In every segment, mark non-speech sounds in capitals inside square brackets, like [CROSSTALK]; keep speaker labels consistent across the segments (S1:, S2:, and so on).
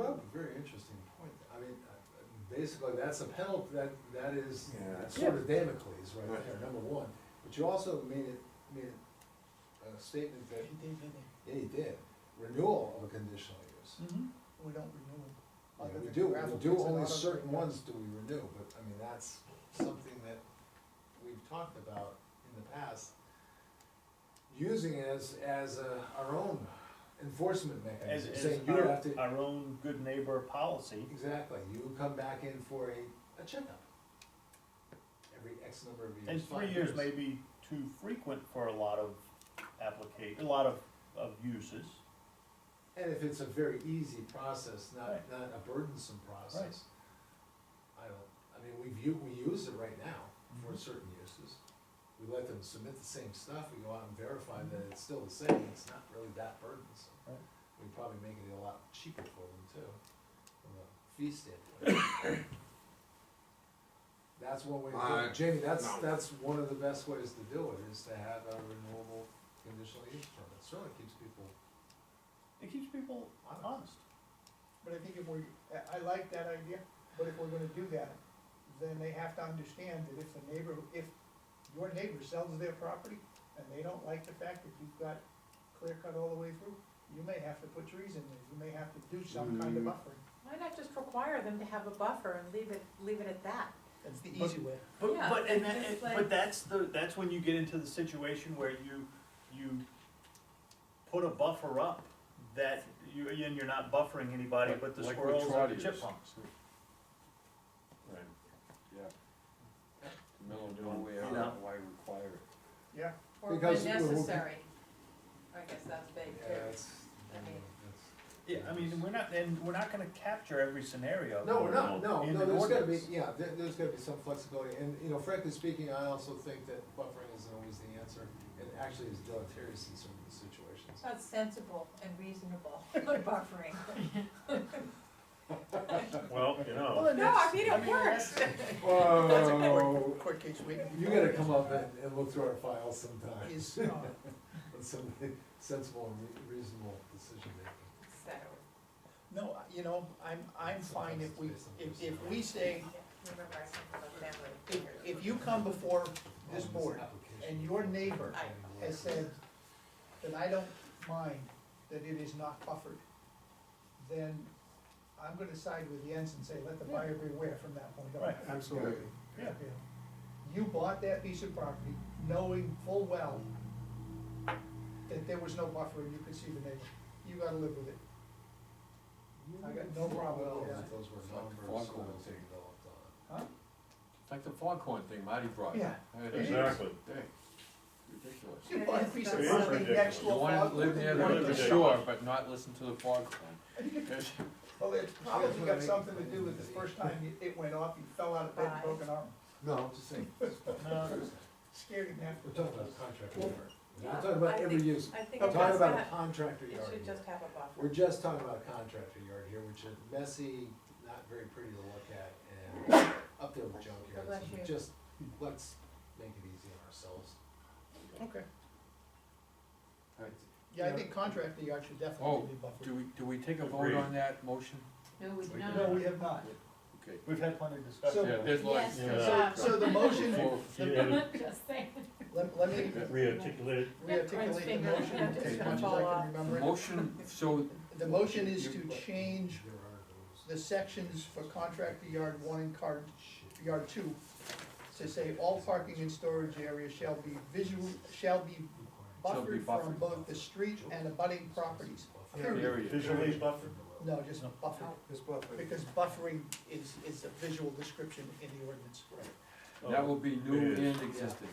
S1: uh, basically, that's a penalty, that, that is
S2: Yeah, that's-
S1: sort of Damocles right
S2: Right.
S1: there, number one. But you also made it, made a statement that, yeah, you did, renewal of a conditional use.
S3: We don't renew them.
S1: Yeah,
S3: Other
S1: we
S3: than
S1: do,
S3: gravel
S1: we do
S3: pits and
S1: only
S3: auto-
S1: certain ones do we renew, but I mean, that's something that we've talked about in the past. Using as, as a- our own enforcement
S4: As,
S1: mechanism,
S4: as
S1: saying you
S4: our,
S1: have to,
S4: our own good neighbor policy,
S1: exactly, you come back in for a, a checkup. Every X number of years.
S4: and three
S1: five
S4: years may be too frequent for a lot of applica, a lot of, of uses.
S1: And if it's a very easy process, not,
S4: Right.
S1: not a burdensome process. I don't, I mean, we view, we use it right now for
S4: Mhm.
S1: certain uses. We let them submit the same stuff, we go out and verify that it's still the same, it's not really that burdensome.
S4: Mm-hmm. Right.
S1: We probably make it a lot cheaper for them too, from a fee standpoint.
S4: [COUGHS]
S1: That's one way to do
S2: I-
S1: it, Jamie, that's,
S2: no.
S1: that's one of the best ways to do it, is to have a renewable conditional use permit, certainly keeps people
S4: It keeps people honest.
S3: But I think if we, I, I like that idea, but if we're gonna do that, then they have to understand that if the neighbor, if your neighbor sells their property and they don't like the fact that you've got clear cut all the way through, you may have to put trees in there, you may have to do some kind of
S2: Mm.
S3: buffering.
S5: Why not just require them to have a buffer and leave it, leave it at that?
S3: That's the
S4: easy
S3: way.
S4: But,
S5: Yeah,
S4: but, and
S5: it's
S4: that,
S5: just
S4: and-
S5: like-
S4: but that's the, that's when you get into the situation where you, you put a buffer up that you, and you're not buffering anybody but the
S2: Like with
S4: squirrels and the
S2: trotters.
S4: chipmunks.
S2: Right, yeah. Middle of
S4: You
S2: nowhere,
S4: know.
S2: why require it?
S3: Yeah,
S5: Or when
S1: Because we- we-
S5: necessary. I guess that's big
S1: Yeah,
S5: too.
S1: it's,
S5: I mean-
S4: Yeah, I mean, we're not, and we're not gonna capture every scenario.
S1: no, we're
S4: going
S1: not,
S4: on
S1: no,
S4: in
S1: no,
S4: an
S1: there's gotta be,
S4: ordinance.
S1: yeah, there, there's gotta be some flexibility, and, you know, frankly speaking, I also think that buffering isn't always the answer, and actually is deleterious in certain situations.
S5: It's [LAUGHS] not sensible and reasonable, [LAUGHS] buffering.
S4: Well,
S3: Well,
S4: you know,
S3: then
S5: No, I
S3: that's-
S5: mean, it works.
S1: Whoa,
S3: court case waiting.
S1: you gotta come up and, and look through our files sometime,
S3: Is, uh,
S1: with some sensible and re- reasonable decision making.
S5: So,
S3: no, you know, I'm, I'm fine if we, if, if we say,
S5: yeah, remember I said about family
S3: if,
S5: figures.
S3: if you come before this
S1: On
S3: board
S1: application.
S3: and your neighbor
S1: I-
S3: has said that I don't mind that it is not buffered, then I'm gonna side with Jens and say, let the buyer beware from that point on.
S4: Right.
S2: Absolutely.
S4: yeah,
S3: Yeah. You bought that piece of property knowing full well that there was no buffer and you could see the neighbor. You gotta live with it. I got no problem with
S1: Well,
S3: that.
S1: Those were
S2: It's like
S1: numbers.
S2: Foghorn
S1: that was
S2: thing.
S1: developed on.
S2: It's like the foghorn thing Marty brought.
S3: Yeah.
S2: It is.
S6: Exactly.
S2: Hey, Ridiculous.
S3: You bought a piece of
S6: It is
S3: property next
S6: ridiculous.
S3: to a
S2: You wanna
S3: farm.
S2: live near the- the
S6: Ridiculous.
S2: shore, but not listen to the foghorn. Yes.
S3: [LAUGHS] Well, it's probably got something to do with the first time you- it went off, you fell out of bed and broke an arm.
S1: No, I'm just
S2: [LAUGHS]
S1: saying.
S4: No.
S3: Scared him half.
S1: We're talking about contractor
S3: Well,
S1: yard. We're not talking about
S5: I
S1: every
S5: think-
S1: use.
S5: I think
S1: We're
S5: it
S1: talking
S5: does
S1: about a
S5: that.
S1: contractor
S5: It
S1: yard.
S5: should
S1: here.
S5: just have a buffer.
S1: We're just talking about a contractor yard here, which is messy, not very pretty to look at,
S5: [COUGHS]
S1: and up there with
S5: God
S1: junkyards.
S5: bless you.
S1: Just, let's make it easy on ourselves.
S3: Okay.
S2: All right.
S3: Yeah, I think contract the yard should
S2: Oh,
S3: definitely be buffered.
S2: Do we, do we take a vote
S6: Agreed.
S2: on that motion?
S7: No, we
S2: We
S7: don't.
S3: No,
S7: [LAUGHS]
S3: we have not.
S2: Okay.
S4: we've had plenty of discussion.
S3: So-
S2: Yeah, there's like.
S7: Yes,
S6: Yeah.
S3: So, so the
S2: [LAUGHS]
S3: motion,
S2: Four-
S7: Just
S5: [LAUGHS]
S7: saying.
S3: let, let me
S6: Rearticulate.
S3: rearticulate the motion as much as I can remember it.
S2: Motion, so,
S3: The motion is to change
S1: There are those.
S3: the sections for contractor yard one and card, yard two to say all parking and storage areas shall be visual, shall be
S2: Shall be
S3: buffered from
S2: buffered.
S3: both the street and abutting properties. Period.
S2: area.
S6: Visually buffered.
S3: No, just buffer, because buffering is, is a visual description in the ordinance.
S4: uh,
S2: That will be new
S6: It is.
S2: and existing.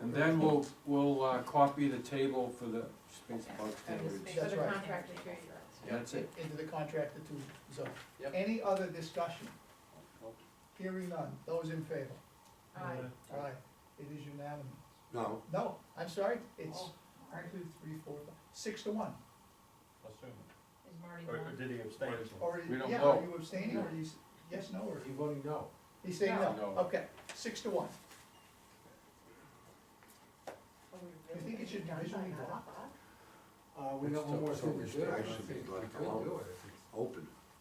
S2: And then we'll, we'll uh, copy the table for the space above standards.
S5: For
S3: That's
S5: the
S3: right.
S5: contractor period.
S2: That's it.
S3: Into the contractor to zone.
S1: Yep.
S3: Any other discussion? Hearing none, those in favor?
S5: Aye.
S3: Aye, it is unanimous.
S2: No.
S3: No, I'm sorry, it's
S5: Oh.
S3: one, two, three, four, five, six to one.
S7: Is Marty
S4: Or
S7: on?
S4: did he abstain?
S3: Or,
S2: We don't
S3: yeah, are
S2: vote.
S3: you abstaining or he's, yes, no, or
S1: Are you voting no?
S3: he's saying
S2: No.
S3: no?
S2: No.
S3: Okay, six to one.
S5: Are we
S3: You
S5: really
S3: think it should
S5: done by
S3: visually
S5: now?
S3: block?
S1: Uh, we
S2: It's
S1: got one more
S2: still-
S1: thing to
S2: still
S1: do. I
S2: restricted,
S1: think
S2: like
S1: we could
S2: alone.
S1: do it if it's-
S2: Open.